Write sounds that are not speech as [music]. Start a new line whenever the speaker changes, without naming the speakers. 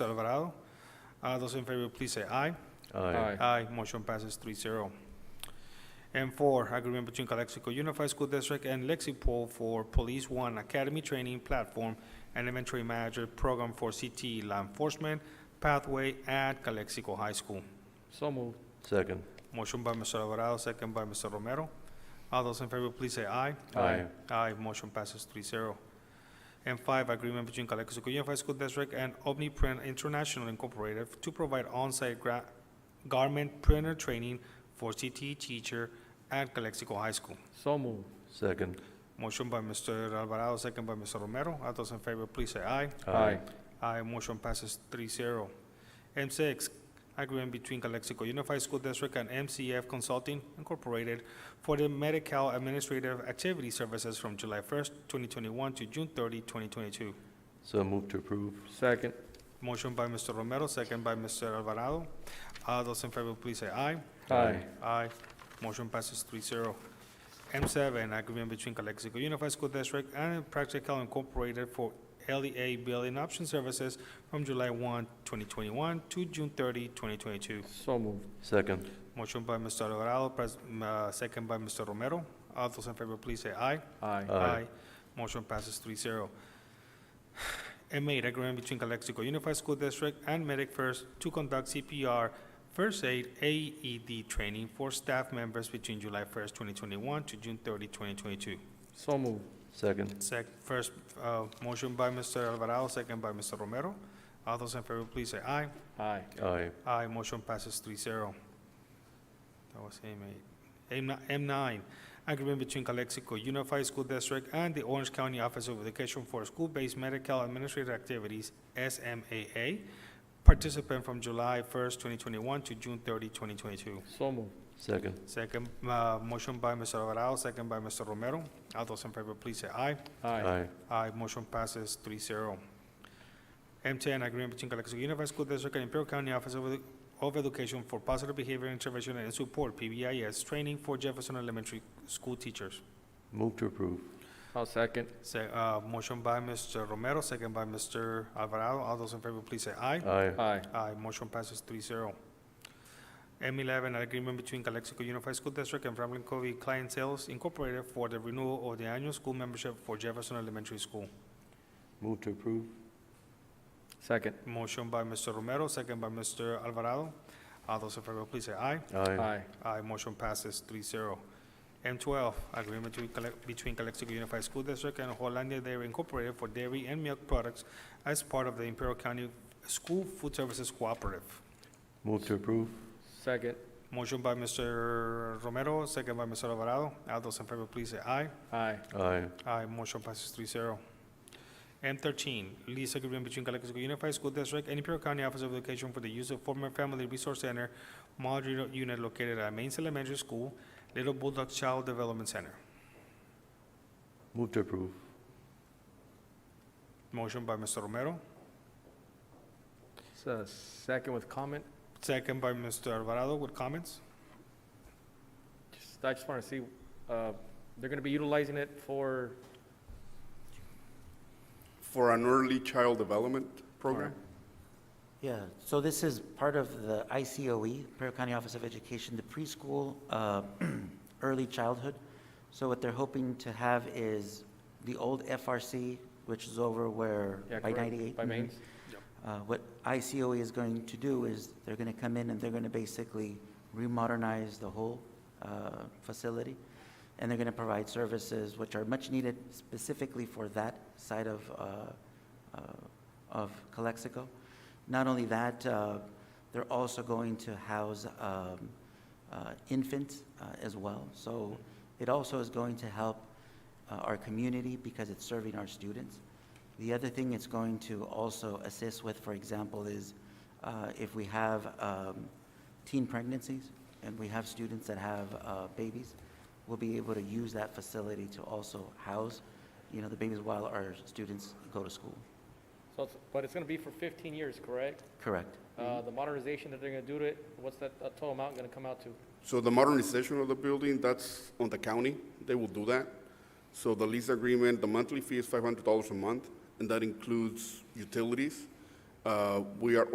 Alvarado. Uh, Those in favor, please say aye.
Aye.
Aye, motion passes 3-0. And four, agreement between Calexico Unified School District and Lexipol for Police One Academy Training Platform and Inventory Manager Program for CT Law Enforcement Pathway at Calexico High School.
So moved.
Second.
Motion by Mr. Alvarado, second by Mr. Romero. All those in favor, please say aye.
Aye.
Aye, motion passes 3-0. And five, agreement between Calexico Unified School District and OmniPrint International Incorporated to provide on-site gra- garment printer training for CTE teacher at Calexico High School.
So moved.
Second.
Motion by Mr. Alvarado, second by Mr. Romero. All those in favor, please say aye. Aye, uh, motion passes 3-0. M six, agreement between Calexico Unified School District and MCF Consulting Incorporated for the Medi-Cal Administrative Activity Services from July first, twenty twenty-one to June 30, 2022.
So move to approve.
Second.
Motion by Mr. Romero, second by Mr. Alvarado. All those in favor, please say aye.
Aye.
Aye. Motion passes 3-0. M seven, agreement between Calexico Unified School District and Practical Incorporated for LEA Building Option Services from July 1, 2021 to June 30, 2022.
So moved.
Second.
Motion by Mr. Alvarado, pres- m- uh, second by Mr. Romero. All those in favor, please say aye.
Aye.
Aye.
Motion passes 3-0. M eight, agreement between Calexico Unified School District and Medic First to conduct CPR First Aid AED training for staff members between July first, twenty twenty-one to June 30, 2022.
So moved.
Second.
Sec, first, uh, motion by Mr. Alvarado, second by Mr. Romero. All those in favor, please say aye.
Aye.
Aye.
Aye, Ah, motion passes 3-0. That was M eight. M ni- M nine, agreement between Calexico Unified School District and the Orange County Office of Education for School-Based Medical Administrative Activities, SMAA, participant from July first, twenty twenty-one to June 30, 2022.
So moved.
Second.
Second, uh, motion by Mr. Alvarado, second by Mr. Romero. All those in favor, please say aye.
Aye.
Aye, motion passes 3-0. M10, agreement between Calexico Unified School District and Imperial County Office of Edu- of Education for Positive Behavior Intervention and Support, PBIS, training for Jefferson Elementary School teachers.
Move to approve.
I'll second.
Se- uh, motion by Mr. Romero, second by Mr. Alvarado. All those in favor, please say aye.
Aye.
Aye.
Aye, motion passes 3-0. M eleven, an agreement between Calexico Unified School District and Franklin Covey Client Sales Incorporated for the renewal of the annual school membership for Jefferson Elementary School.
Move to approve.
Second.
Motion by Mr. Romero, second by Mr. Alvarado. All those in favor, please say aye.
Aye.
Aye, motion passes 3-0. M twelve, agreement to collect- between Calexico Unified School District and Hollandia Dairy Incorporated for dairy and milk products as part of the Imperial County School Food Services Cooperative.
Move to approve.
Second.
Motion by Mr. Romero, second by Mr. Alvarado. All those in favor, please say aye.
Aye.
Aye.
Aye, motion passes 3-0. M thirteen, lease agreement between Calexico Unified School District and Imperial County Office of Education for the use of former Family Resource Center modular unit located at Mains Elementary School, Little Bulldog Child Development Center.
Move to approve.
Motion by Mr. Romero,
It's a second with comment.
second by Mr. Alvarado with comments.
Just, I just want to see, uh, they're going to be utilizing it for,
For an early child development program?
Yeah, so this is part of the ICOE, E, Imperial County Office of Education, the preschool, uh, [clears throat] early childhood. So what they're hoping to have is the old FRC, which is over where,
yeah,
by Mm-hmm.
correct?
98?
By mains?
Uh, What ICOE is going to do is they're going to come in and they're going to basically remodernize the whole uh, facility. And they're going to provide services which are much needed specifically for that side of, uh, uh, of Calexico. Not only that, uh, they're also going to house um, uh, infants uh, as well. So it also is going to help uh, our community because it's serving our students. The other thing it's going to also assist with, for example, is uh, if we have um, teen pregnancies and we have students that have uh, babies, we'll be able to use that facility to also house, you know, the babies while our students go to school.
So, it's- but it's going to be for 15 years, correct?
Correct.
Uh, The modernization that they're going to do to it, what's that uh, total amount going to come out to?
So the modernization of the building, that's on the county, they will do that. So the lease agreement, the monthly fee is five hundred dollars a month, and that includes utilities, Uh, We are